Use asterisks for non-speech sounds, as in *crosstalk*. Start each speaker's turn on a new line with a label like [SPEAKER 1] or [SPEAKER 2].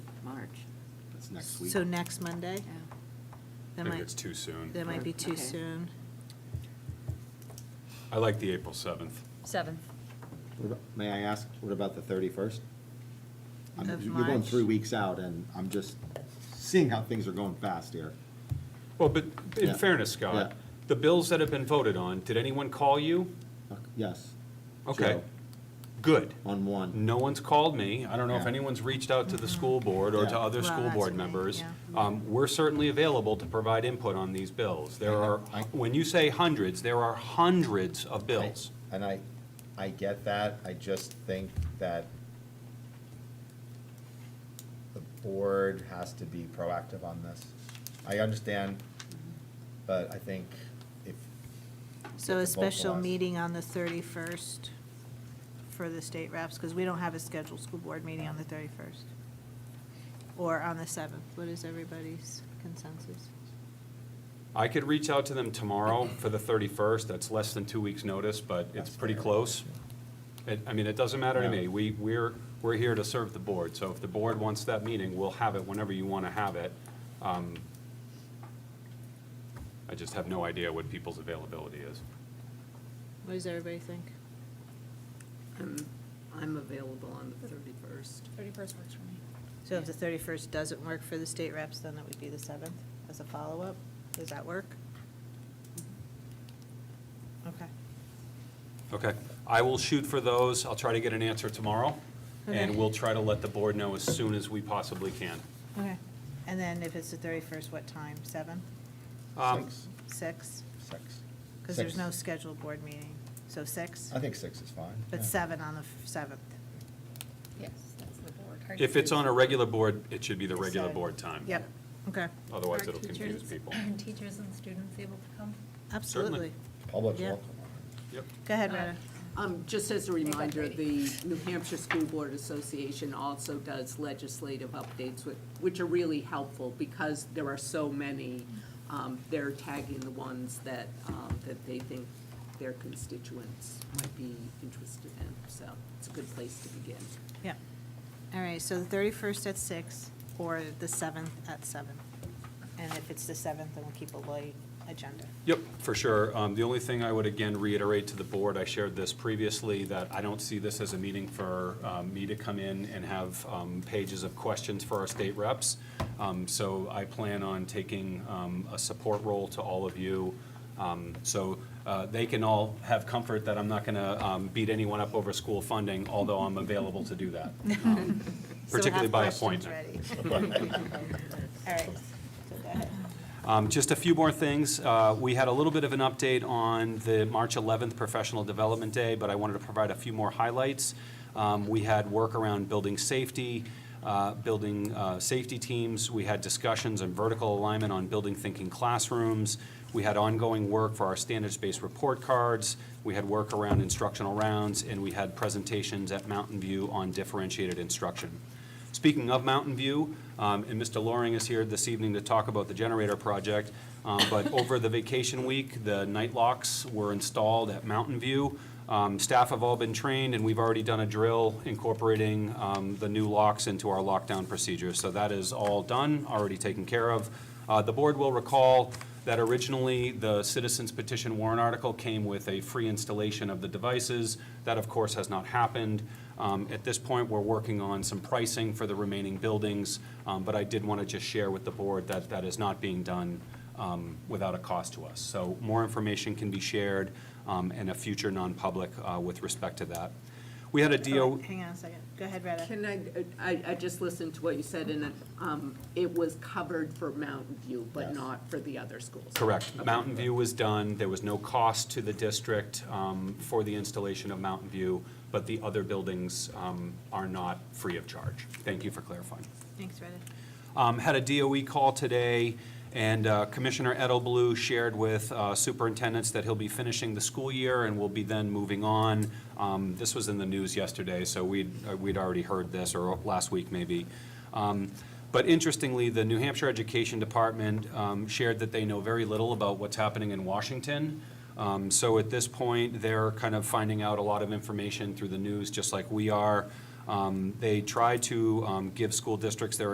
[SPEAKER 1] That's next week.
[SPEAKER 2] So next Monday? That
[SPEAKER 3] Maybe
[SPEAKER 2] might-
[SPEAKER 3] it's too soon.
[SPEAKER 2] That might be too
[SPEAKER 4] Okay.
[SPEAKER 2] soon.
[SPEAKER 3] I like the April 7th.
[SPEAKER 5] Seventh.
[SPEAKER 1] What about- May I ask, what about the thirty-first?
[SPEAKER 2] Of
[SPEAKER 1] You're going
[SPEAKER 2] March?
[SPEAKER 1] three weeks out, and I'm just seeing how things are going fast here.
[SPEAKER 3] Well, but in
[SPEAKER 1] Yeah.
[SPEAKER 3] fairness, Scott,
[SPEAKER 1] Yeah.
[SPEAKER 3] the bills that have been voted on, did anyone call you?
[SPEAKER 1] Yes.
[SPEAKER 3] Okay,
[SPEAKER 1] Joe,
[SPEAKER 3] good.
[SPEAKER 1] On one.
[SPEAKER 3] No one's called me. I don't know if
[SPEAKER 1] Yeah.
[SPEAKER 3] anyone's reached out to the school board or to
[SPEAKER 1] Yeah.
[SPEAKER 3] other
[SPEAKER 2] Mm-hmm. Well,
[SPEAKER 3] school
[SPEAKER 2] that's
[SPEAKER 3] board
[SPEAKER 2] great,
[SPEAKER 3] members.
[SPEAKER 2] yeah.
[SPEAKER 3] Um, We're certainly available to provide input on these bills. There are,
[SPEAKER 1] I-
[SPEAKER 3] when you say hundreds, there are hundreds of bills.
[SPEAKER 6] And I, I get that, I just think that the board has to be proactive on this. I understand, but I think if,
[SPEAKER 2] So a
[SPEAKER 6] Get the vocal
[SPEAKER 2] special
[SPEAKER 6] last.
[SPEAKER 2] meeting on the 31st for the state reps, because we don't have a scheduled school board meeting on the 31st. Or on the 7th. What is everybody's consensus?
[SPEAKER 3] I could reach out to them tomorrow for the 31st. That's less than two weeks' notice, but it's
[SPEAKER 6] That's
[SPEAKER 3] pretty
[SPEAKER 6] fair.
[SPEAKER 3] close. It- I mean, it doesn't matter to
[SPEAKER 6] No.
[SPEAKER 3] me. We, we're, we're here to serve the board. So if the board wants that meeting, we'll have it whenever you want to have it. Um, I just have no idea what people's availability is.
[SPEAKER 2] What does everybody think?
[SPEAKER 4] I'm, I'm available on the thirty-first.
[SPEAKER 5] Thirty-first works for me.
[SPEAKER 2] So if the 31st doesn't work for the state reps, then it would be the 7th as a follow-up? Does that work? Okay.
[SPEAKER 3] Okay, I will shoot for those. I'll try to get an answer tomorrow. And
[SPEAKER 2] Okay.
[SPEAKER 3] we'll try to let the board know as soon as we possibly can.
[SPEAKER 2] Okay. And then if it's the 31st, what time? 7?
[SPEAKER 3] Um,
[SPEAKER 6] six,
[SPEAKER 2] 6?
[SPEAKER 6] six.
[SPEAKER 2] Because there's
[SPEAKER 6] Six.
[SPEAKER 2] no scheduled board meeting. So 6?
[SPEAKER 6] I think six is fine.
[SPEAKER 2] But
[SPEAKER 6] yeah.
[SPEAKER 2] seven on the seventh.
[SPEAKER 5] Yes, that's the board.
[SPEAKER 3] If it's on a regular board, it should be the
[SPEAKER 2] The
[SPEAKER 3] regular
[SPEAKER 2] 7th.
[SPEAKER 3] board time.
[SPEAKER 2] Yep, okay,
[SPEAKER 3] Otherwise, it'll
[SPEAKER 2] *laughs*
[SPEAKER 3] confuse people.
[SPEAKER 5] *clears throat* Teachers and students able to come?
[SPEAKER 2] absolutely.
[SPEAKER 6] Public's
[SPEAKER 2] Yeah.
[SPEAKER 6] welcome.
[SPEAKER 3] Yep.
[SPEAKER 2] Go
[SPEAKER 5] Uh,
[SPEAKER 2] ahead, Rheta.
[SPEAKER 4] Um, just as a reminder, the New Hampshire School Board Association also does legislative updates, which, which are really helpful because there are so many. Um, they're tagging the ones that, um, that they think their constituents might be interested in, so it's a good place to begin.
[SPEAKER 2] Yep. All right, so the thirty-first at six or the seventh at seven. And if it's the seventh, then we'll keep a light agenda.
[SPEAKER 3] Yep, for sure. Um, The only thing I would again reiterate to the board, I shared this previously, that I don't see this as a meeting for um, me to come in and have um, pages of questions for our state reps. Um, So I plan on taking um, a support role to all of you. Um, So uh, they can all have comfort that I'm not going to beat anyone up over school funding, although I'm available to do
[SPEAKER 2] *laughs*
[SPEAKER 3] that, um,
[SPEAKER 2] So we'll
[SPEAKER 3] particularly
[SPEAKER 2] have
[SPEAKER 3] by
[SPEAKER 2] questions
[SPEAKER 3] appointment.
[SPEAKER 6] *laughs*
[SPEAKER 2] ready. *laughs* All right, so go ahead.
[SPEAKER 3] Um, Just a few more things. Uh, We had a little bit of an update on the March 11th Professional Development Day, but I wanted to provide a few more highlights. Um, We had work around building safety, uh, building uh, safety teams. We had discussions on vertical alignment on building thinking classrooms. We had ongoing work for our standards-based report cards. We had work around instructional rounds, and we had presentations at Mountain View on differentiated instruction. Speaking of Mountain View, um, and Mr. Loring is here this evening to talk about the generator project, um, but over the vacation week, the night locks were installed at Mountain View. Um, Staff have all been trained, and we've already done a drill incorporating um, the new locks into our lockdown procedures. So that is all done, already taken care of. Uh, The board will recall that originally, the citizens petition warrant article came with a free installation of the devices. That, of course, has not happened. Um, At this point, we're working on some pricing for the remaining buildings, um, but I did want to just share with the board that that is not being done um, without a cost to us. So more information can be shared um, in a future non-public uh, with respect to that. We had a
[SPEAKER 2] Oh,
[SPEAKER 3] DO,
[SPEAKER 2] wait, Hang on a second. Go ahead, Rheta.
[SPEAKER 4] Can I, uh, I, I just listened to what you said, and um, it was covered for Mountain View, but
[SPEAKER 6] Yes.
[SPEAKER 4] not for the other schools.
[SPEAKER 3] Correct. Mountain View was done. There was no cost to the district um, for the installation of Mountain View, but the other buildings um, are not free of charge. Thank you for clarifying.
[SPEAKER 2] Thanks, Rheta.
[SPEAKER 3] Um, Had a DOE call today, and uh, Commissioner Edelblu shared with uh, superintendents that he'll be finishing the school year and will be then moving on. Um, This was in the news yesterday, so we'd, uh, we'd already heard this, or last week maybe. Um, But interestingly, the New Hampshire Education Department um, shared that they know very little about what's happening in Washington. Um, So at this point, they're kind of finding out a lot of information through the news, just like we are. Um, They try to um, give school districts their